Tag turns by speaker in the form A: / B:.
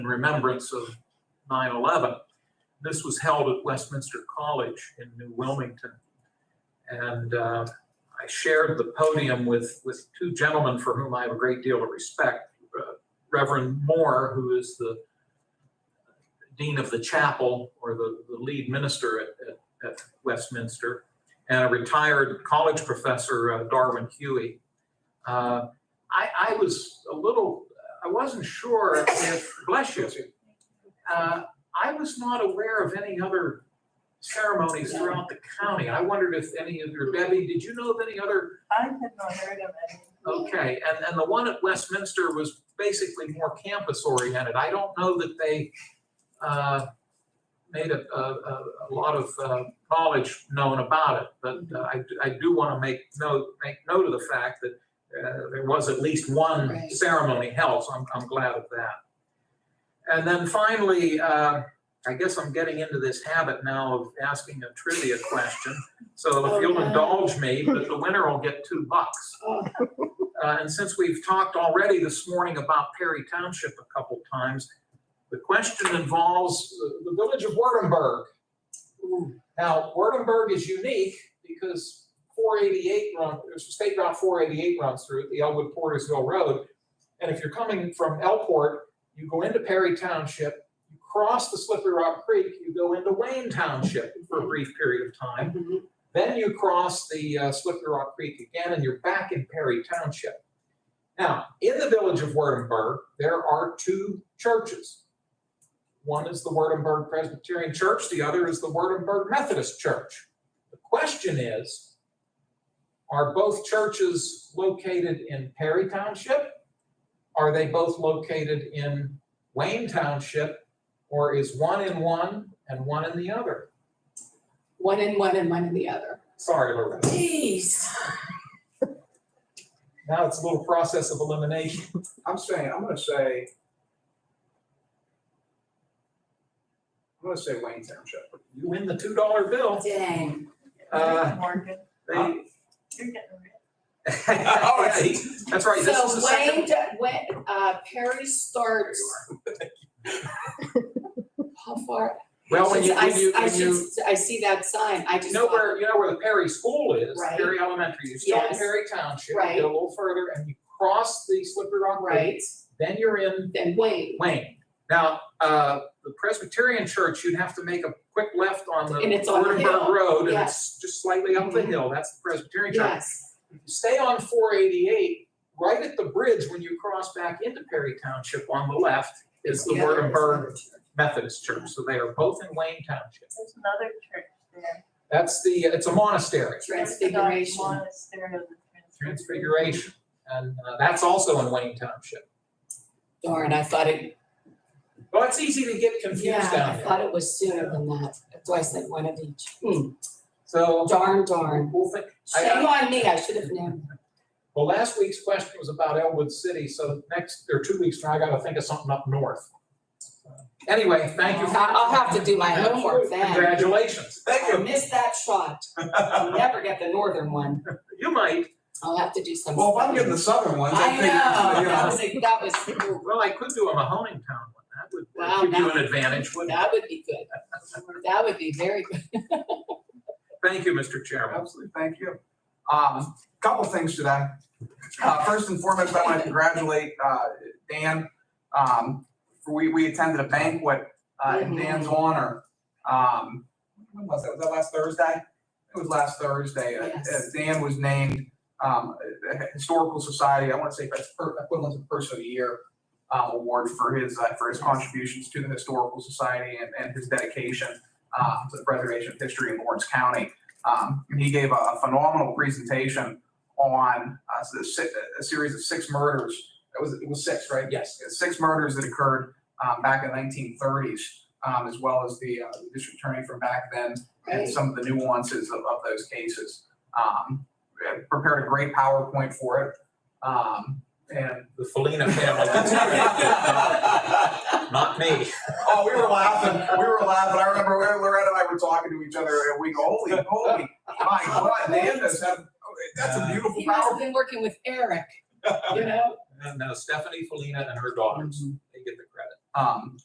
A: in remembrance of 9/11. This was held at Westminster College in New Wilmington. And uh, I shared the podium with, with two gentlemen for whom I have a great deal of respect. Uh, Reverend Moore, who is the dean of the chapel or the, the lead minister at, at- at Westminster, and a retired college professor, uh, Darwin Huey. Uh, I, I was a little, I wasn't sure if, bless you, uh, I was not aware of any other ceremonies throughout the county. I wondered if any of your, Debbie, did you know of any other
B: I had not heard of any.
A: Okay, and, and the one at Westminster was basically more campus oriented. I don't know that they uh, made a, a, a a lot of uh, knowledge known about it, but uh, I, I do want to make note, make note of the fact that uh, there was at least one
C: Right.
A: ceremony held, so I'm, I'm glad of that. And then finally, uh, I guess I'm getting into this habit now of asking a trivia question. So
C: Oh,
A: if you'll
C: no.
A: indulge me, but the winner will get two bucks. Uh, And since we've talked already this morning about Perry Township a couple times, the question involves uh, the- the village of Wurtemberg. Now, Wurtemberg is unique because 488, run- there's State Route 488 runs through it, the Elwood Portersville Road. And if you're coming from Elport, you go into Perry Township, you cross the Slippery Rock Creek, you go into Wayne Township for a brief period of time. Then you cross the uh, Slippery Rock Creek again, and you're back in Perry Township. Now, in the village of Wurtemberg, there are two churches. One is the Wurtemberg Presbyterian Church, the other is the Wurtemberg Methodist Church. The question is, are both churches located in Perry Township? Are they both located in Wayne Township? Or is one in one and one in the other?
C: One in one and one in the other.
A: Sorry, Loretta.
C: Jeez.
A: Now it's a little process of elimination.
D: I'm saying, I'm gonna say. I'm gonna say Wayne Township.
A: You win the two dollar bill.
C: Dang.
A: Uh,
B: Morgan,
A: They-
D: Huh?
B: you're getting rid.
A: Uh, Hey, oh, That's right. This is
C: So
A: the
C: Wayne,
A: second.
C: d- when, uh, Perry starts. How far?
A: Well, when you,
C: Since I
A: when
C: s-
A: you,
C: I
A: when you,
C: should- I see that sign, I
A: you
C: just
A: know
C: thought,
A: where, you know where the Perry School is,
C: Right.
A: Perry Elementary, you start in
C: Yes.
A: Perry Township, you
C: Right.
A: go a little further and you cross the Slippery Rock Creek.
C: right,
A: Then you're in
C: then Wayne,
A: Wayne. Now, uh, the Presbyterian Church, you'd have to make a quick left on the
C: And it's on the
A: Wurtemberg
C: hill. Mm-hmm.
A: Road and it's just slightly up the hill. That's the Presbyterian Church.
C: yes,
A: stay on four eighty-eight, right at the bridge when you cross back into Perry Township on the left is the
C: Yeah, there's
A: Wurtemberg Methodist Church, so they are both in Wayne Township.
B: There's another church there.
A: That's the, it's a monastery,
B: Orthodox
C: transfiguration.
B: Monastery of the
A: Transfiguration,
B: Transfiguration.
A: and uh, that's also in Wayne Township.
C: Darn, I thought it,
A: Well, it's easy to get
C: yeah,
A: confused down
C: I
A: there,
C: thought it was sooner than that, that's why I said one of each. Hmm,
A: so
C: Darn, darn.
A: we'll think, I- uh,
C: Shame on me, I should have known.
A: well, last week's question was about Elwood City, so next, or two weeks from now, I gotta think of something up north. Anyway, thank you. for-
C: Oh, I- I'll have to do my homework then.
A: Congratulations.
C: I missed that shot, I'll never get the northern one,
A: You might.
C: I'll have to do some.
D: Well, if I'm getting the southern ones, I
C: I
D: think.
C: know,
D: you
C: that was, a- that was,
A: Well, I could do a Mahoning Town one. That would
C: Wow,
A: give you
C: that-
A: an advantage, wouldn't it?
C: that would be good. That would be very good.
A: Thank you, Mr. Chairman.
D: Absolutely, thank you. Um, couple things today. Uh, first and foremost, I want to congratulate, uh, Dan. Um, we, we attended a banquet, uh, in Dan's honor. Um, when was that? Was that last Thursday? It was last Thursday. Uh,
C: Yes.
D: uh, Dan was named, um, uh, Historical Society, I want to say that's per- equivalent to Person of the Year, uh, award for his, uh, for his contributions to the Historical Society and, and his dedication, uh, to the preservation of history in Lawrence County. Um, and he gave a- a phenomenal presentation on uh, the si- a series of six murders. It was, it was six, right?
A: Yes.
D: Six murders that occurred um, back in the 1930s, um, as well as the uh, the district attorney from back then and some of the nuances of, of those cases. Um, I Prepared a great PowerPoint for it. Um, And, uh,
A: The Felina family. Not me.
D: oh, we were laughing, we were laughing. I remember Loretta and I were talking to each other and we go, holy, holy, my God, Dan does have, that's a beautiful
C: He must
D: PowerPoint.
C: have been working with Eric, you know? Mm-hmm.
A: And uh, Stephanie Felina and her daughters, they get the credit.
D: Um,